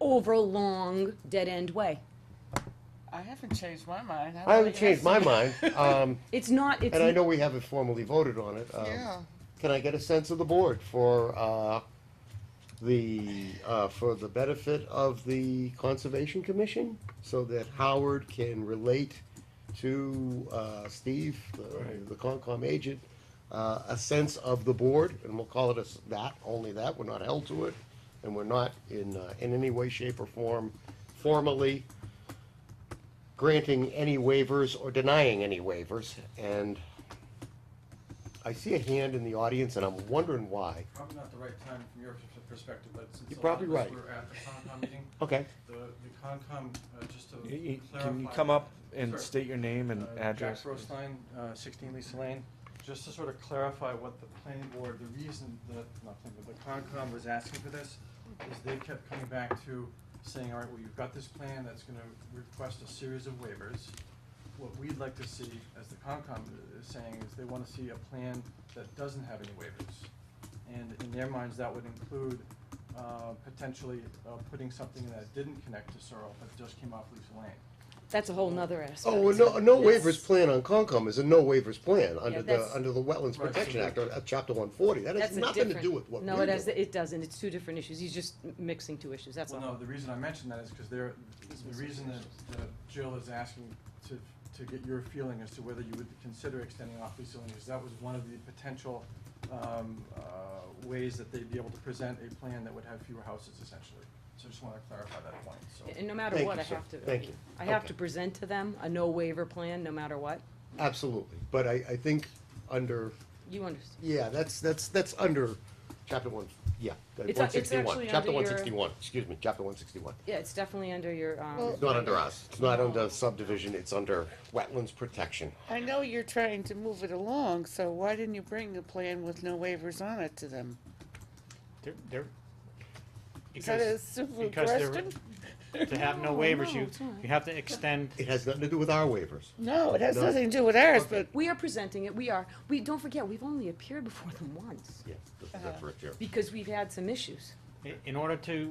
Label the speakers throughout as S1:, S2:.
S1: over long dead end way.
S2: I haven't changed my mind.
S3: I haven't
S2: like it.
S3: changed my mind, um,
S1: It's not, it's.
S3: and I know we haven't formally voted on it. um,
S2: Yeah.
S3: Can I get a sense of the board for, uh, the, uh, for the benefit of the Conservation Commission? So that Howard can relate to, uh, Steve, the- the Concom agent, uh, a sense of the board, and we'll call it as that, only that, we're not held to it. And we're not in, uh, in any way, shape, or form formally granting any waivers or denying any waivers. And I see a hand in the audience, and I'm wondering why.
S4: Probably not the right time from your pers- perspective, but since
S3: You're
S4: a lot
S3: probably
S4: of us
S3: right.
S4: were at the Concom meeting,
S3: Okay.
S4: the, the Concom, uh, just to
S5: Y- y-
S4: clarify.
S5: Can you come up and
S4: Sure.
S5: state your name and
S4: Uh,
S5: address?
S4: Jack Roseline, uh, sixteen Lisa Lane, just to sort of clarify what the planning board, the reason that, not planning, board, the Concom was asking for this, is they kept coming back to saying, all right, well, you've got this plan that's gonna request a series of waivers. What we'd like to see, as the Concom is saying, is they wanna see a plan that doesn't have any waivers. And in their minds, that would include uh, potentially uh, putting something that didn't connect to Searle, but just came off Lisa Lane.
S1: That's a whole nother aspect.
S3: Oh, well, no, no
S1: Yes.
S3: waivers plan on Concom is a no waivers plan under the,
S1: that's-
S3: under the Wetlands
S4: Right, so
S3: Protection
S4: that-
S3: Act, or uh, Chapter one forty. That has
S1: That's a
S3: nothing to
S1: different-
S3: do with what
S1: No,
S3: we're
S1: it has,
S3: doing.
S1: it doesn't, it's two different issues, he's just m- mixing two issues, that's
S4: Well,
S1: all.
S4: no, the reason I mentioned that is because they're, the reason that that Jill is asking to, to get your feeling as to whether you would consider extending off Lisa Lane, is that was one of the potential, um, uh, ways that they'd be able to present a plan that would have fewer houses essentially. So just wanna clarify that point, so.
S1: And no matter
S3: Thank
S1: what,
S3: you,
S1: I
S3: sir.
S1: have to.
S3: Thank you.
S1: I have
S3: Okay.
S1: to present to them a no waiver plan, no matter what,
S3: Absolutely. But I, I think under,
S1: you understand.
S3: yeah, that's, that's, that's under chapter one, yeah,
S1: It's a-
S3: one
S1: it's
S3: sixty-one,
S1: actually
S3: chapter
S1: under
S3: one
S1: your-
S3: sixty-one, excuse me, chapter one sixty-one.
S1: Yeah, it's definitely under your, um,
S3: It's not under us. It's not under subdivision. It's under Wetlands Protection.
S2: I know you're trying to move it along, so why didn't you bring the plan with no waivers on it to them?
S6: They're, they're,
S2: Is that a
S6: because
S2: simple
S6: because they're-
S2: question?
S6: to have
S2: No,
S6: no waivers,
S2: no,
S6: you,
S2: it's not.
S6: you have to extend,
S3: It has nothing to do with our waivers.
S2: No, it has
S3: No.
S2: nothing to do with ours, but
S1: we are presenting it, we are, we, don't forget, we've only appeared before them once,
S3: Yes, that's right there.
S1: because we've had some issues.
S6: i- in order to,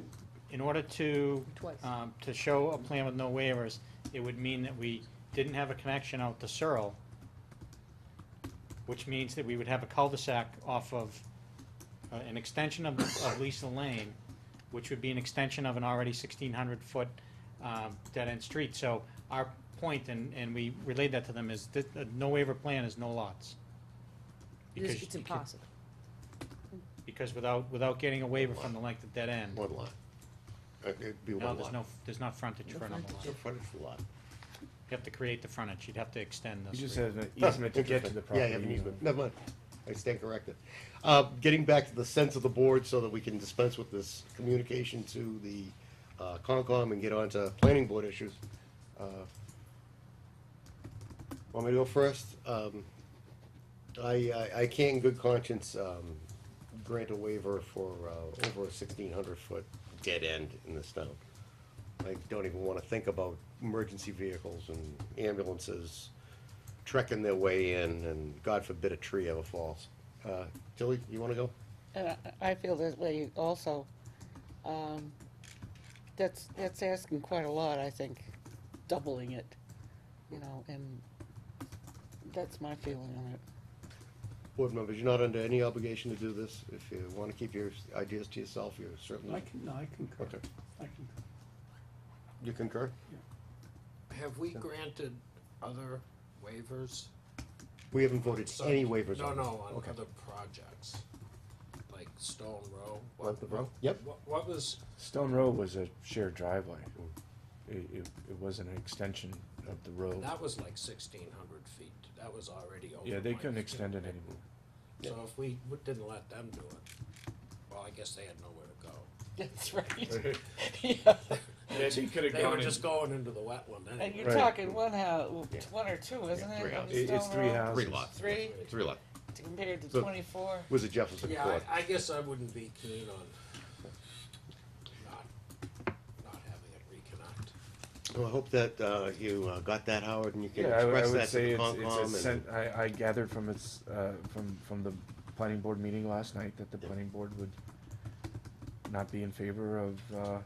S6: in order to,
S1: Twice.
S6: um, to show a plan with no waivers, it would mean that we didn't have a connection out to Searle, which means that we would have a cul-de-sac off of, uh, an extension of, of Lisa Lane, which would be an extension of an already sixteen hundred foot, um, dead-end street. So our point, and, and we relayed that to them, is that, uh, no waiver plan is no lots.
S1: It's-
S6: Because
S1: It's
S6: you can-
S1: impossible.
S6: Because without, without getting a waiver from the length of dead end,
S3: One lot. Uh, It'd be
S6: no,
S3: one
S6: there's
S3: lot.
S6: no, there's not frontage
S1: No
S6: for another
S1: frontage.
S6: lot.
S3: No frontage for lot.
S6: You have to create the frontage, you'd have to extend
S5: You
S6: this.
S5: just
S6: street.
S5: have an easement to get to
S3: Interesting.
S5: the
S3: Yeah,
S5: property.
S3: you have an
S5: you know.
S3: easement. Never mind. I stand corrected. Uh, getting back to the sense of the board so that we can dispense with this communication to the, uh, Concom and get on to planning board issues. uh, Want me to go first? Um, I, I, I can in good conscience, um, grant a waiver for, uh, over a sixteen hundred foot dead end in this town. I don't even wanna think about emergency vehicles and ambulances trekking their way in, and God forbid a tree ever falls. Uh, Tilly, you wanna go?
S2: uh, I feel this way also. Um, That's, that's asking quite a lot, I think, doubling it, you know, and that's my feeling on it.
S3: Board members, you're not under any obligation to do this. If you wanna keep your ideas to yourself, you're
S7: I
S3: certainly,
S7: can, no, I concur.
S3: Okay.
S7: I concur.
S3: you concur?
S8: Have we granted other waivers?
S3: We haven't voted any waivers
S8: No,
S3: on this.
S8: no, on
S3: Okay.
S8: other projects, like Stone Row.
S3: Like the row? Yep.
S8: What, what was,
S5: Stone Row was a shared driveway. It, it, it wasn't an extension of the road.
S8: that was like sixteen hundred feet, that was already over.
S5: Yeah, they
S8: my-
S5: couldn't extend it anymore.
S8: So if we w- didn't let them do it, well, I guess they had nowhere to go.
S2: That's right. Yeah.
S8: They were just going into the wetland
S2: And
S8: anyway.
S2: you're
S5: Right.
S2: talking one house,
S3: Yeah.
S2: one or two, isn't
S3: Yeah,
S2: it?
S3: three
S2: on
S3: houses.
S5: It- It's
S2: Stone
S5: three
S2: Row?
S5: houses.
S3: Three lots.
S2: Three
S3: Three lot.
S2: compared to
S3: So-
S2: twenty-four.
S3: Was it Jefferson
S8: Yeah,
S3: Court?
S8: I, I guess I wouldn't be keen on not, not having it reconnect.
S3: Well, I hope that, uh, you uh, got that, Howard, and you can
S5: Yeah, I would- I
S3: express
S5: would
S3: that
S5: say
S3: to the
S5: it's, it's a
S3: Concom and.
S5: sen- I, I gathered from its, uh, from, from the planning board meeting last night that the planning board would not be in favor of, uh,